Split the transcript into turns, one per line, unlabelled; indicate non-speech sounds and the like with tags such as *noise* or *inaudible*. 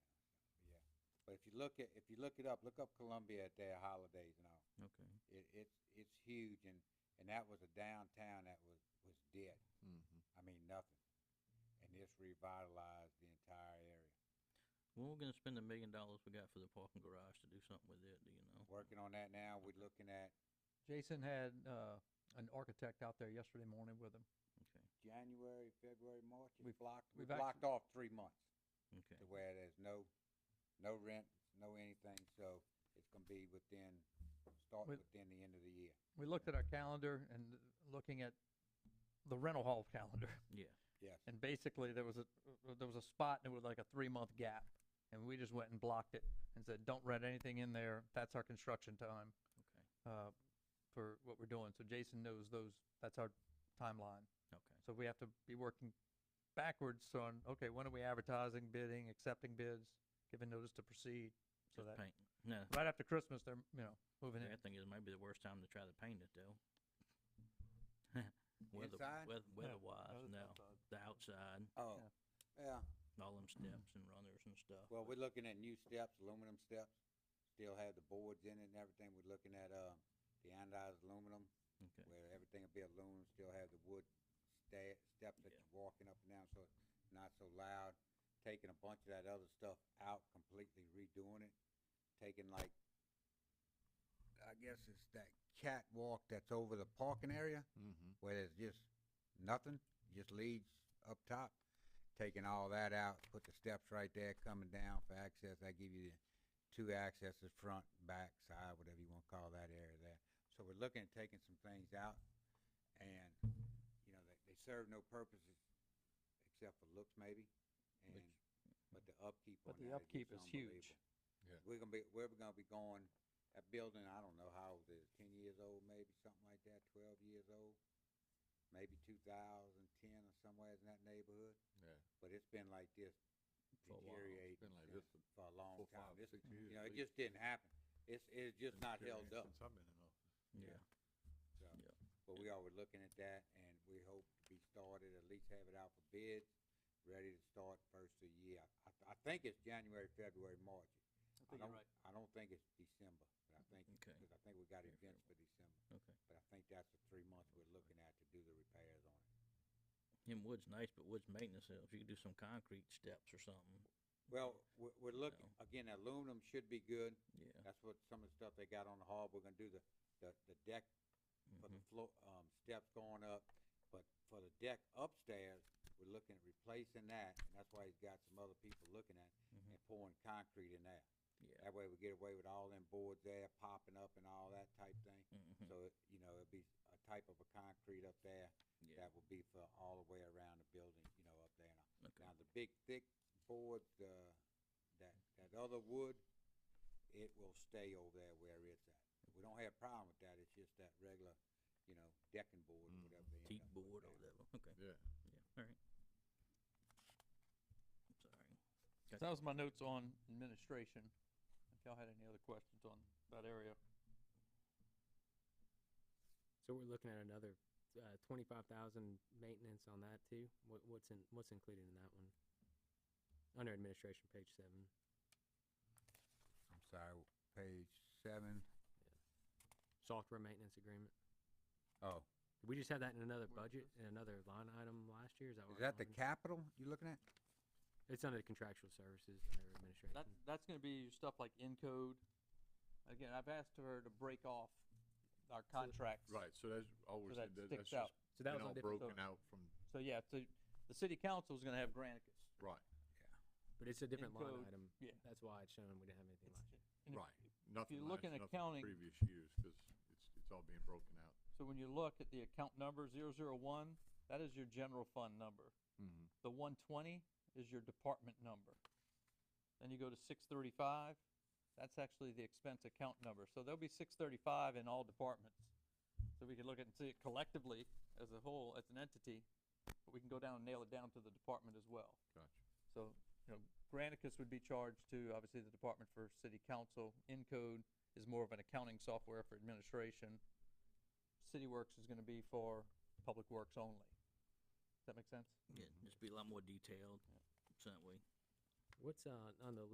But if you look at, if you look it up, look up Columbia at their holidays and all.
Okay.
It, it's, it's huge and, and that was a downtown that was, was dead.
Mm-hmm.
I mean, nothing. And this revitalized the entire area.
When we're gonna spend the million dollars we got for the parking garage to do something with it, do you know?
Mm-hmm.
Working on that now, we're looking at
Jason had, uh, an architect out there yesterday morning with him.
Okay,
January, February, March. It's
We've-
blocked, we
we've
blocked off three months
okay.
to where there's no, no rent, no anything, so it's gonna be within, start
With-
within the end of the year.
We looked at our calendar and looking at the rental hall calendar. *laughs*
Yeah,
Yes,
And basically, there was a, uh, there was a spot and it was like a three-month gap. And we just went and blocked it and said, don't rent anything in there. That's our construction time,
okay,
uh, for what we're doing. So Jason knows those, that's our timeline.
okay.
So we have to be working backwards on, okay, when are we advertising, bidding, accepting bids, giving notice to proceed? So
Just
that,
paint. No,
right after Christmas, they're, you know, moving
I
in.
think it might be the worst time to try to paint it though. *laughs* Weather,
Inside?
weath- weather-wise, no, the outside,
oh, yeah,
all them steps and runners and stuff.
well,
but-
we're looking at new steps, aluminum steps, still have the boards in it and everything, we're looking at, uh, the anodized aluminum,
Okay,
where everything will be aluminum, still have the wood sta- steps that
Yeah.
you're walking up and down, so it's not so loud. Taking a bunch of that other stuff out, completely redoing it, taking like, I guess it's that catwalk that's over the parking area,
Mm-hmm.
where there's just nothing, just leads up top. Taking all that out, put the steps right there, coming down for access, I give you the two accesses, front, back, side, whatever you wanna call that area there. So we're looking at taking some things out, and, you know, they, they serve no purposes except for looks maybe, and, but the upkeep on
But the
that is
upkeep
just
is huge.
unbelievable.
Yeah.
We're gonna be, we're gonna be going, that building, I don't know how old it is, ten years old maybe, something like that, twelve years old, maybe two thousand ten or somewhere in that neighborhood,
Yeah.
but it's been like this
For a while.
deteriorate
Been like
yeah,
this for
for a long
four,
time.
five,
This,
six years.
you know,
at
it
least.
just didn't happen. It's, it's just
Been
not held
deteriorating
up,
Since I've been in office.
yeah,
so,
Yeah.
but we are, we're looking at that and we hope to be started, at least have it out for bids, ready to start first of the year. I, I think it's January, February, March. I don't, I don't think it's December, but I think,
okay,
cause I think we got
Yeah,
events for December,
Mm-hmm. okay.
but I think that's the three months we're looking at to do the repairs on it.
And wood's nice, but wood's maintenance, uh, if you could do some concrete steps or something,
Well, we're, we're looking,
No.
again, aluminum should be good.
yeah.
That's what some of the stuff they got on the hall, we're gonna do the, the, the deck for
mhm.
the floor, um, steps going up, but for the deck upstairs, we're looking at replacing that, and that's why he's got some other people looking at,
Mhm.
and pouring concrete in there.
Yeah.
That way we get away with all them boards there popping up and all that type thing,
mhm,
so it, you know, it'd be a type of a concrete up there
Yeah,
that will be for all the way around the building, you know, up there. Now-
okay,
Now, the big thick boards, uh, that, that other wood, it will stay over there where it's at. We don't have a problem with that, it's just that regular, you know, decking board or
Mm.
whatever they end
Hmm. teak
up putting
board or
down.
whatever, okay,
Yeah.
yeah, alright. Sorry.
So that was my notes on administration. If y'all had any other questions on that area.
So we're looking at another uh, twenty-five thousand maintenance on that too. What, what's in, what's included in that one? Under administration, page seven.
I'm sorry, page seven.
Software maintenance agreement.
Oh,
Did we just have that in another
Where is
budget and another line item last year? Is that?
is
what
that the
line-
capital you looking at?
It's under contractual services under administration.
That, that's gonna be stuff like Encode. Again, I've asked her to break off our contracts.
Right, so that's always,
that
that- that's
sticks
just
out.
So
been
that was
all
on different,
broken out from,
So, yeah, so the city council is gonna have Granicus.
right,
but it's a different line
Encode,
item.
yeah.
That's why it's showing we didn't have anything last year.
And if-
right. Nothing
you
last,
look in
nothing
accounting-
Previous years, because it's, it's all being broken out.
So when you look at the account number zero zero one, that is your general fund number.
Mm-hmm.
The one twenty is your department number. Then you go to six thirty-five, that's actually the expense account number. So there'll be six thirty-five in all departments. So we can look at and see it collectively as a whole, as an entity, but we can go down and nail it down to the department as well.
Gotcha.
So, you know, Granicus would be charged to, obviously, the Department for City Council. Encode is more of an accounting software for administration. City Works is gonna be for public works only. Does that make sense?
Yeah, just be a lot more detailed, so that way
What's uh, on the